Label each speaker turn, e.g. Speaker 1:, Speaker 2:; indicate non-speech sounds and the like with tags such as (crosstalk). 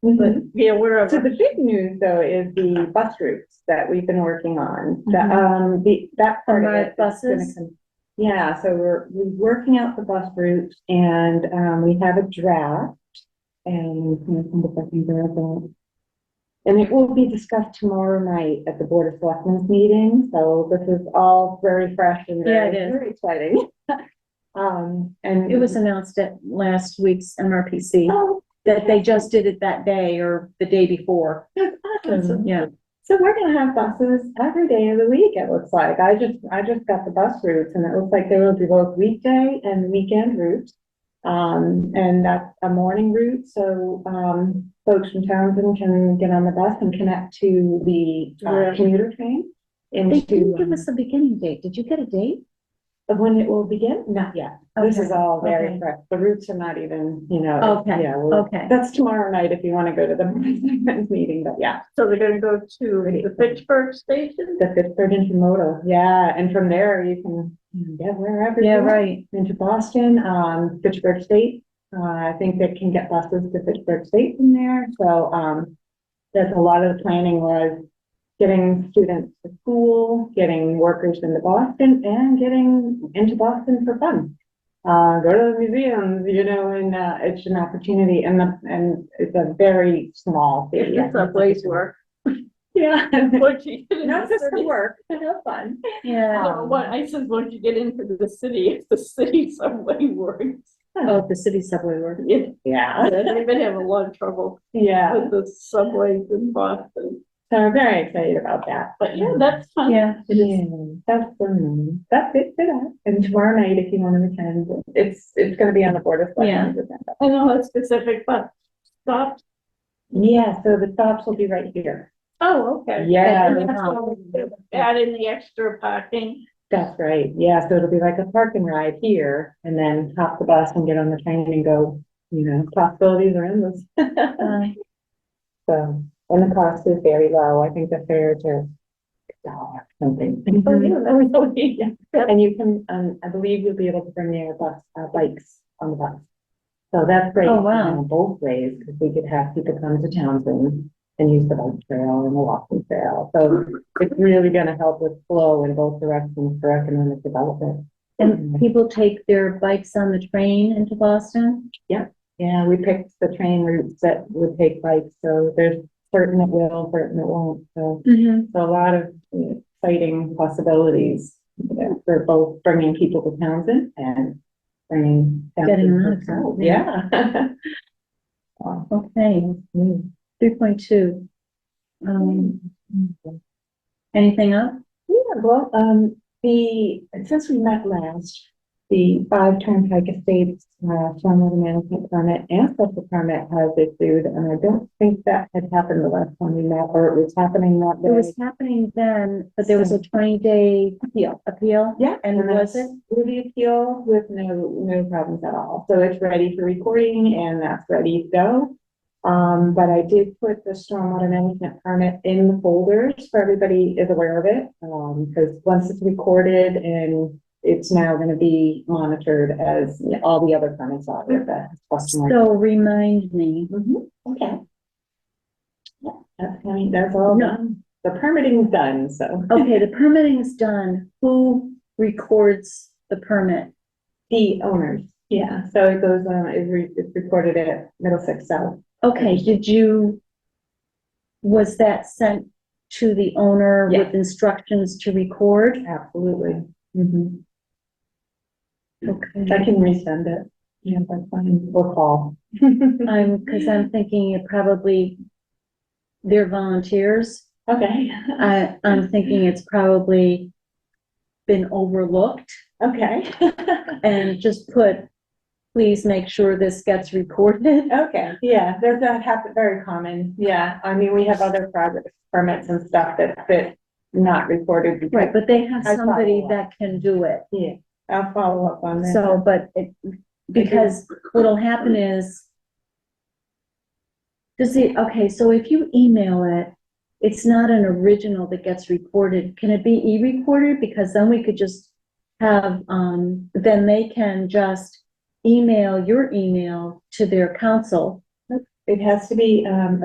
Speaker 1: Mhm.
Speaker 2: Be aware of.
Speaker 1: So the big news though is the bus routes that we've been working on, the,
Speaker 2: Mhm.
Speaker 1: um, the, that part of
Speaker 2: Combined
Speaker 1: it. is gonna
Speaker 2: buses?
Speaker 1: come- Yeah, so we're, we're working out the bus routes and, um, we have a draft. And we can come up with something durable. And it will be discussed tomorrow night at the Board of Selectmen's meeting, so this is all very fresh and
Speaker 2: Yeah,
Speaker 1: very,
Speaker 2: it is.
Speaker 1: very exciting. (laughs) Um, and.
Speaker 2: It was announced at last week's MRPC
Speaker 1: Oh,
Speaker 2: that they just did it that day or the day before.
Speaker 1: that's awesome.
Speaker 2: Yeah,
Speaker 1: So we're gonna have buses every day of the week, it looks like. I just, I just got the bus routes and it looks like there will be both weekday and weekend routes. Um, and that's a morning route, so, um, folks from Townsend can get on the bus and connect to the uh,
Speaker 2: Right.
Speaker 1: commuter train.
Speaker 2: they
Speaker 1: Into,
Speaker 2: didn't give us a beginning date. Did you get a date?
Speaker 1: um, when it will begin? Not yet. This is
Speaker 2: Okay,
Speaker 1: all very
Speaker 2: okay.
Speaker 1: fresh. The routes are not even, you know.
Speaker 2: Okay,
Speaker 1: yeah, we'll-
Speaker 2: Okay.
Speaker 1: That's tomorrow night if you wanna go to the (laughs) meeting, but yeah.
Speaker 3: So they're gonna go to the Pittsburgh station?
Speaker 1: The Pittsburgh intermodal, yeah, and from there you can you know, get wherever.
Speaker 2: Yeah,
Speaker 1: you want.
Speaker 2: right.
Speaker 1: Into Boston, um, Pittsburgh State, uh, I think they can get buses to Pittsburgh State from there, so, um. That's a lot of the planning was getting students to school, getting workers into Boston, and getting into Boston for fun. Uh, go to the museums, you know, and, uh, it's an opportunity, and the, and it's a very small city.
Speaker 3: It's a place where,
Speaker 1: (laughs) Yeah,
Speaker 3: once you get into
Speaker 1: not
Speaker 3: the
Speaker 1: just for
Speaker 3: city.
Speaker 1: work, but have fun.
Speaker 2: Yeah.
Speaker 3: No, What, I said, once you get into the city, it's the city (laughs) subway works.
Speaker 2: Oh, the city subway work.
Speaker 3: Yeah,
Speaker 1: Yeah,
Speaker 3: They've been having a lot of trouble
Speaker 1: yeah.
Speaker 3: with the subways in Boston,
Speaker 1: So I'm very excited about that.
Speaker 3: but yeah, that's fun.
Speaker 2: Yeah.
Speaker 1: It is. That's um, that's it for that. And tomorrow night, if you want to attend, it's it's going to be on the board of selectmen's agenda.
Speaker 3: I know it's specific, but stop.
Speaker 1: Yeah. So the stops will be right here.
Speaker 3: Oh, okay.
Speaker 1: Yeah.
Speaker 3: And that's what we do. Add in the extra parking.
Speaker 1: That's right. Yeah. So it'll be like a park and ride here, and then hop the bus and get on the train and go. You know, possibilities are endless.
Speaker 2: Uh,
Speaker 1: So and the cost is very low. I think the fares are a dollar something. (laughs)
Speaker 2: Mhm.
Speaker 3: Yeah, that would be-
Speaker 1: And you can, um, I believe you'll be able to bring your bus, uh, bikes on the bus. So that's great.
Speaker 2: Oh,
Speaker 1: you
Speaker 2: wow.
Speaker 1: know, Both ways, because we could have people come to Townsend and use the bike trail and the walking trail. So it's really gonna help with flow in both directions for economic development. Mm-hmm.
Speaker 2: And Uh, people take their bikes on the train into Boston?
Speaker 1: Yeah, we picked the train routes that would take bikes, so there's certain that will, certain that won't, so.
Speaker 2: Mm-hmm.
Speaker 1: So a lot of you know, exciting possibilities you know, for both bringing people to Townsend and bringing.
Speaker 2: Getting
Speaker 1: Townsend
Speaker 2: Um, them out of
Speaker 1: to-
Speaker 2: town,
Speaker 1: Yeah. (laughs)
Speaker 2: Okay,
Speaker 1: Mm.
Speaker 2: three point two.
Speaker 1: Mm-hmm.
Speaker 2: Um, anything else?
Speaker 1: Yeah, well, um, the, since we met last, the five Turnpike Estates, uh, stormwater management permit and special permit has issued, and I don't think that had happened the last time we met, or it was happening that
Speaker 2: It was
Speaker 1: day.
Speaker 2: happening then, but there was a twenty day appeal, appeal?
Speaker 1: Yeah,
Speaker 2: And
Speaker 1: then
Speaker 2: was it?
Speaker 1: With the appeal with no, no problems at all. So it's ready for recording and that's ready to go. Um, but I did put the stormwater management permit in the folders for everybody is aware of it. Um, because once it's recorded and it's now gonna be monitored as all the other permits are with the. customer.
Speaker 2: So remind me,
Speaker 1: Mhm, okay. Yeah, that's, I mean, that's all
Speaker 2: No.
Speaker 1: done. The permitting's done, so.
Speaker 2: okay, the permitting's done, who records the permit?
Speaker 1: The owners, yeah, so it goes, um, is re, it's recorded at Middlesex South.
Speaker 2: Okay, did you, was that sent to the owner with instructions to record?
Speaker 1: Absolutely. hmm
Speaker 2: Okay.
Speaker 1: I can resend it, yeah, that's fine, or call. (laughs)
Speaker 2: I'm, because I'm thinking it probably, they're volunteers.
Speaker 1: Okay,
Speaker 2: I, I'm thinking it's probably been overlooked
Speaker 1: okay,
Speaker 2: and just put, please make sure this gets recorded.
Speaker 1: okay, yeah, there's that happen, very common, yeah, I mean, we have other progress permits and stuff that, that not recorded. because-
Speaker 2: (laughs) Right, but they have
Speaker 1: I follow
Speaker 2: somebody
Speaker 1: up.
Speaker 2: that can do it.
Speaker 1: Yeah, I'll follow up on that.
Speaker 2: So, but it, because what'll happen is, does it, okay, so if you email it, it's not an original that gets recorded. Can it be e-recorded? Because then we could just have, um, then they can just email your email to their council
Speaker 1: it has to be, um,